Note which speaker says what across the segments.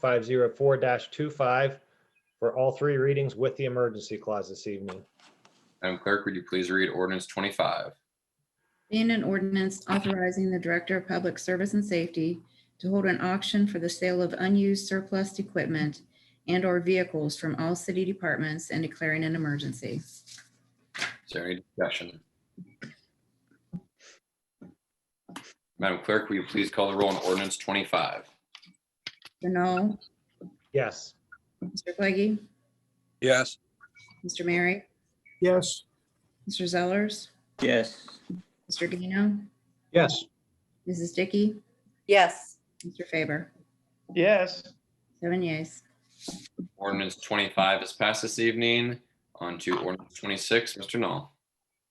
Speaker 1: five zero four 25 for all three readings with the emergency clause this evening.
Speaker 2: Madam Clerk, would you please read ordinance twenty-five?
Speaker 3: Being an ordinance authorizing the Director of Public Service and Safety to hold an auction for the sale of unused surplus equipment and/or vehicles from all city departments and declaring an emergency.
Speaker 2: Is there any discussion? Madam Clerk, will you please call the roll on ordinance twenty-five?
Speaker 3: Denault,
Speaker 1: Yes,
Speaker 3: Mr. Pleggy,
Speaker 4: Yes.
Speaker 3: Mr. Mary,
Speaker 4: Yes.
Speaker 3: Mr. Zellers,
Speaker 5: yes,
Speaker 3: Mr. Gano,
Speaker 4: Yes.
Speaker 3: Mrs. Dickey,
Speaker 6: yes,
Speaker 3: Mr. Faber.
Speaker 7: yes,
Speaker 3: Seven yeas.
Speaker 2: Ordinance twenty-five is passed this evening. On to ordinance twenty-six, Mr. Knoll.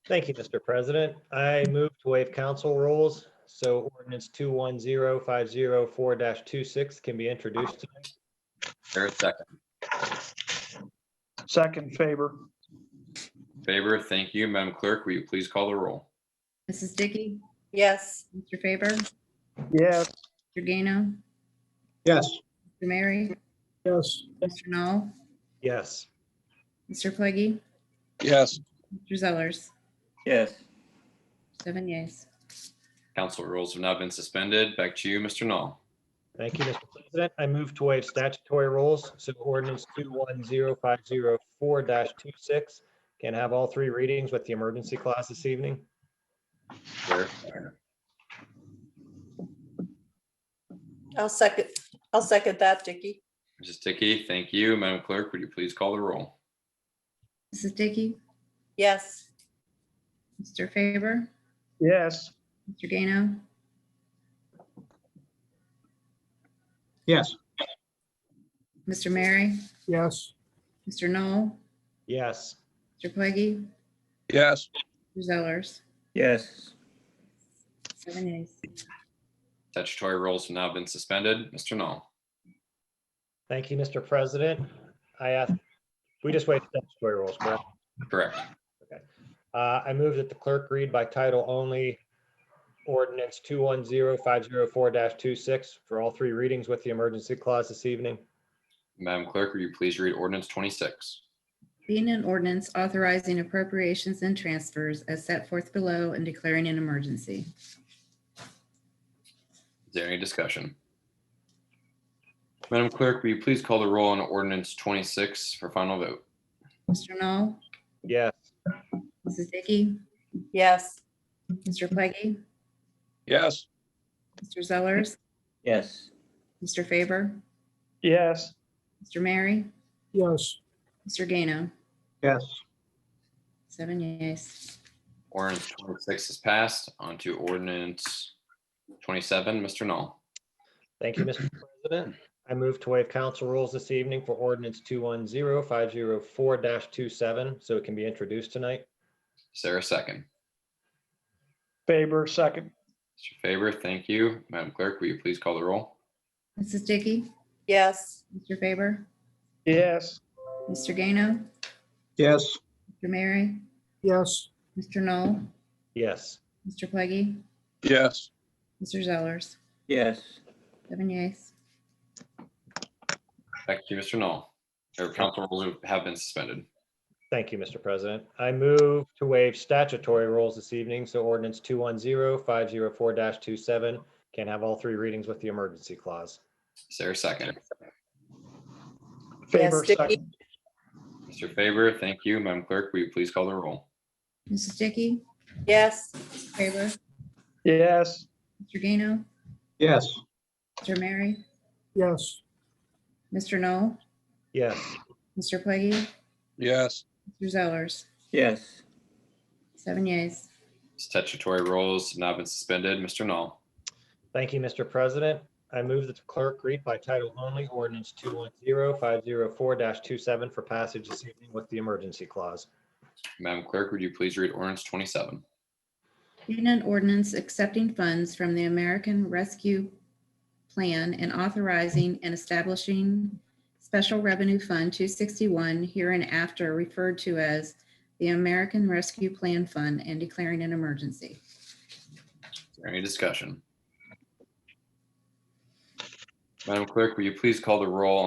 Speaker 1: thank you, Mr. President. I move to waive council rules. So ordinance two one zero five zero four 26 can be introduced. tonight.
Speaker 2: Is There a second.
Speaker 7: second favor,
Speaker 2: Favor, thank you. Madam Clerk, will you please call the roll?
Speaker 3: Mrs. Dickey,
Speaker 6: yes,
Speaker 3: Mr. Faber, Mr.
Speaker 7: yes,
Speaker 3: Gano,
Speaker 4: Yes.
Speaker 3: Mr. Mary,
Speaker 4: Yes.
Speaker 3: Mr. Knoll,
Speaker 1: Yes,
Speaker 3: Mr. Pleggy,
Speaker 4: Yes.
Speaker 3: Mr. Zellers.
Speaker 5: yes.
Speaker 3: Seven yeas.
Speaker 2: Council rules have now been suspended. Back to you, Mr. Knoll.
Speaker 1: thank you, Mr. President. I move to waive statutory rules. So ordinance two one zero five zero four 26 can have all three readings with the emergency clause this evening.
Speaker 2: Is there-
Speaker 6: I'll second, I'll second that, Dicky.
Speaker 2: Mrs. Dickey, thank you. Madam Clerk, would you please call the roll?
Speaker 3: Mrs. Dickey,
Speaker 6: Yes,
Speaker 3: Mr. Faber,
Speaker 7: yes,
Speaker 3: Mr. Gano,
Speaker 4: Yes.
Speaker 3: Mr. Mary,
Speaker 4: Yes.
Speaker 3: Mr. Knoll,
Speaker 1: Yes,
Speaker 3: Mr. Pleggy,
Speaker 4: Yes.
Speaker 3: Mr. Zellers.
Speaker 5: Yes,
Speaker 3: Seven yeas.
Speaker 2: Statutory rules have now been suspended. Mr. Knoll.
Speaker 1: thank you, Mr. President. I ask, we just waived statutory rules, correct?
Speaker 2: Correct.
Speaker 1: Uh, I move that the clerk read by title only ordinance two one zero five zero four 26 for all three readings with the emergency clause this evening.
Speaker 2: Madam Clerk, will you please read ordinance twenty-six?
Speaker 3: Being an ordinance authorizing appropriations and transfers as set forth below and declaring an emergency.
Speaker 2: Is there any discussion? Madam Clerk, will you please call the roll on ordinance twenty-six for final vote?
Speaker 3: Mr. Knoll,
Speaker 1: Yes,
Speaker 3: Mrs. Dickey,
Speaker 6: yes,
Speaker 3: Mr. Pleggy,
Speaker 4: Yes.
Speaker 3: Mr. Zellers,
Speaker 5: yes,
Speaker 3: Mr. Faber,
Speaker 7: yes,
Speaker 3: Mr. Mary,
Speaker 4: Yes.
Speaker 3: Mr. Gano,
Speaker 4: Yes.
Speaker 3: seven yeas.
Speaker 2: Ordinance twenty-six is passed. On to ordinance twenty-seven, Mr. Knoll.
Speaker 1: thank you, Mr. President. I move to waive council rules this evening for ordinance two one zero five zero four 27 so it can be introduced tonight.
Speaker 2: Is there a second?
Speaker 7: favor, second,
Speaker 2: Mr. Faber, thank you. Madam Clerk, will you please call the roll?
Speaker 3: Mrs. Dickey,
Speaker 6: yes,
Speaker 3: Mr. Faber,
Speaker 7: yes,
Speaker 3: Mr. Gano,
Speaker 4: Yes.
Speaker 3: Mr. Mary,
Speaker 4: Yes.
Speaker 3: Mr. Knoll,
Speaker 1: Yes,
Speaker 3: Mr. Pleggy,
Speaker 4: Yes.
Speaker 3: Mr. Zellers,
Speaker 5: yes,
Speaker 3: seven yeas.
Speaker 2: Back to you, Mr. Knoll. Or council rules have been suspended.
Speaker 1: thank you, Mr. President. I move to waive statutory rules this evening, so ordinance two one zero five zero four 27 can have all three readings with the emergency clause.
Speaker 2: Is there a second?
Speaker 7: favor,
Speaker 6: Dicky.
Speaker 7: second,
Speaker 2: Mr. Faber, thank you. Madam Clerk, will you please call the roll?
Speaker 3: Mrs. Dickey,
Speaker 6: yes,
Speaker 3: Faber,
Speaker 7: yes,
Speaker 3: Mr. Gano,
Speaker 4: Yes.
Speaker 3: Mr. Mary,
Speaker 4: Yes.
Speaker 3: Mr. Knoll,
Speaker 1: Yes,
Speaker 3: Mr. Pleggy,
Speaker 4: Yes.
Speaker 3: Mr. Zellers,
Speaker 5: yes,
Speaker 3: seven yeas.
Speaker 2: Statutory rules have now been suspended. Mr. Knoll.
Speaker 1: Thank you, Mr. President. I move that the clerk read by title only ordinance two one zero five zero four 27 for passage this evening with the emergency clause.
Speaker 2: Madam Clerk, would you please read ordinance twenty-seven?
Speaker 3: Being an ordinance accepting funds from the American Rescue Plan and authorizing and establishing Special Revenue Fund 261 hereinafter referred to as the American Rescue Plan Fund and declaring an emergency.
Speaker 2: Is there Any discussion? Madam Clerk, will you please call the roll